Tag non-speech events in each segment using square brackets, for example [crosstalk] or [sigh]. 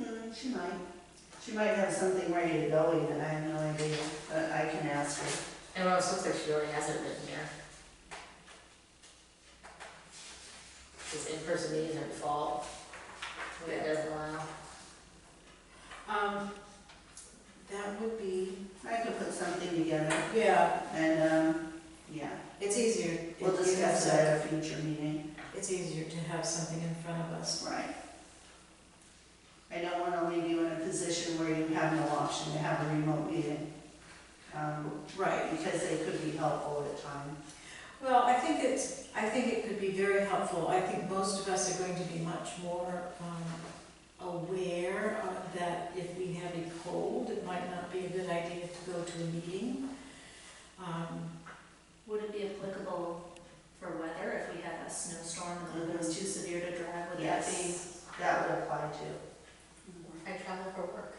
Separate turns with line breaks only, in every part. Mm, She might. She might have something ready to go even, I have no idea, but I can ask her.
And well, it looks like she really has it written here. This in-person meetings are default, we have allow.
Um, that would be,
I could put something together
yeah,
and, um, yeah,
it's easier. if
we'll
you have
discuss
some-
that at a future meeting.
It's easier to have something in front of us.
Right. I don't wanna leave you in a position where you have no option to have a remote meeting. Um,
Right.
because they could be helpful at times.
Well, I think it's, I think it could be very helpful. I think most of us are going to be much more um, aware of that if we have a cold, it might not be a good idea to go to a meeting. Um,
Would it be applicable for weather if we had a snowstorm and the weather was too severe to drive? Would that be?
Yes, that would apply too.
I travel for work.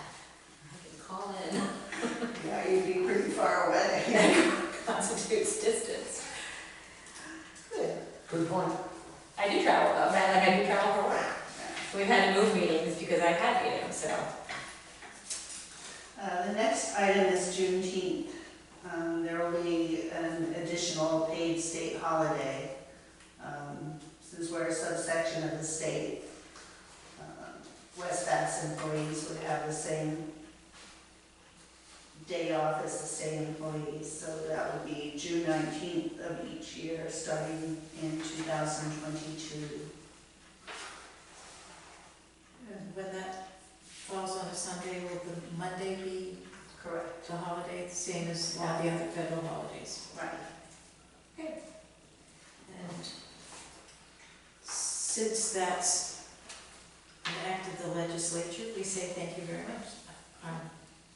I can call in,
Yeah, you'd be pretty far away.
[laughs] constitutes distance. Good.
Good point.
I do travel though, man, like I do travel for work. We've had to move meetings because I had meetings, so.
Uh, The next item is Juneteenth. Um, There will be an additional paid state holiday. um, Since we're a subsection of the state, Um, West Bath employees would have the same day off as the state employees. So that would be June 19th of each year, starting in 2022.
and When that falls on a Sunday, will the Monday be
Correct.
the holiday, same as all the other federal holidays?
Right.
And since that's an act of the legislature, we say thank you very much. I'm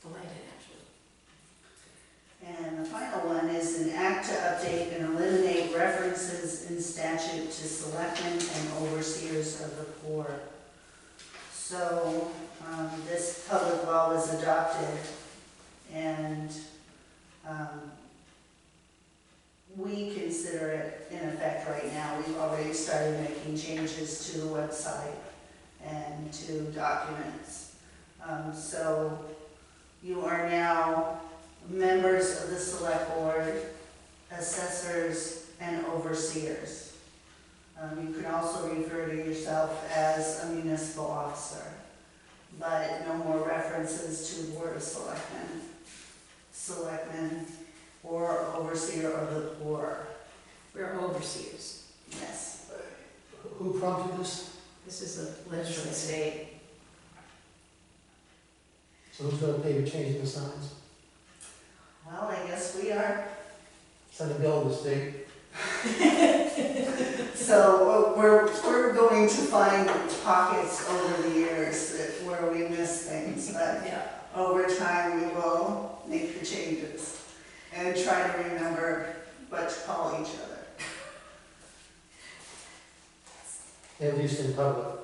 delighted, actually.
And the final one is an act to update and eliminate references in statute to selectmen and overseers of the poor. So, um, this public law was adopted and, um, we consider it in effect right now. We've already started making changes to the website and to documents. Um, so you are now members of the select board, assessors, and overseers. Um, you can also refer to yourself as a municipal officer, but no more references to board of selectmen, selectmen, or overseer of the poor.
We're overseers.
Yes,
Who prompted this?
This is a
It's from the
legislature.
state.
So who's gonna pay for changing the signs?
well, I guess we are.
Send a bill to the state.
So uh, we're, we're going to find pockets over the years that- where we miss things, but
Yeah.
Over time, we will make the changes and try to remember what to call each other.
At least in public.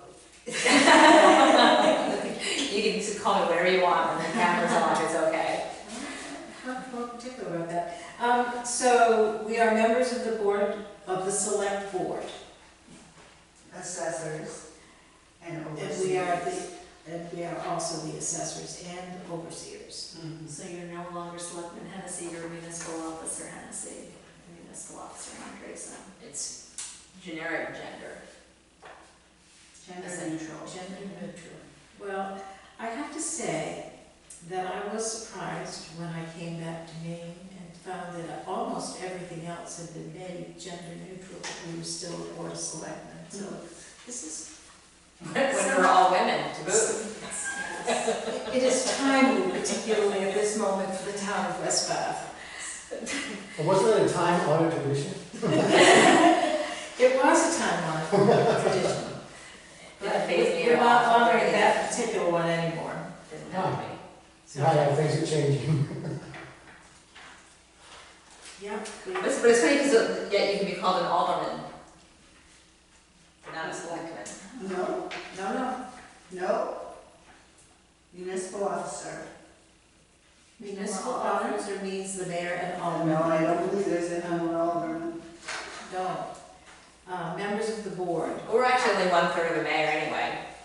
[laughs] You can just call me whatever you want, when the camera's on, it's okay.
Not more particular about that. Um, so we are members of the board, of the select board.
Assessors and overseers.
And we are the, and we are also the assessors and overseers.
Mhm.
So you're no longer Selectman Hennessy, you're Municipal Officer Hennessy, and Municipal Officer Andrewson.
It's generic gender.
Gender neutral.
Gender neutral. Well, I have to say that I was surprised when I came back to Maine and found that almost everything else had been made gender neutral, but we were still a board of selectmen, so this is,
When we're all women, to boot.
Yes.
it is timely, particularly at this moment for the town of West Bath.
And wasn't it a time honored tradition?
It was a time honored tradition,
It
but
phased me
we're not
out.
honoring that particular one anymore.
Didn't help me.
Now, yeah, things are [laughs] changing.
Yep.
But it's, but it's funny because yet you can be called an alderman, but not a selectman.
No,
No, no,
no. Municipal officer.
Municipal officer means the mayor and
Oh,
aldermen.
no, I don't believe there's anyone over.
No. Uh, Members of the board,
We're actually only one third of the mayor anyway.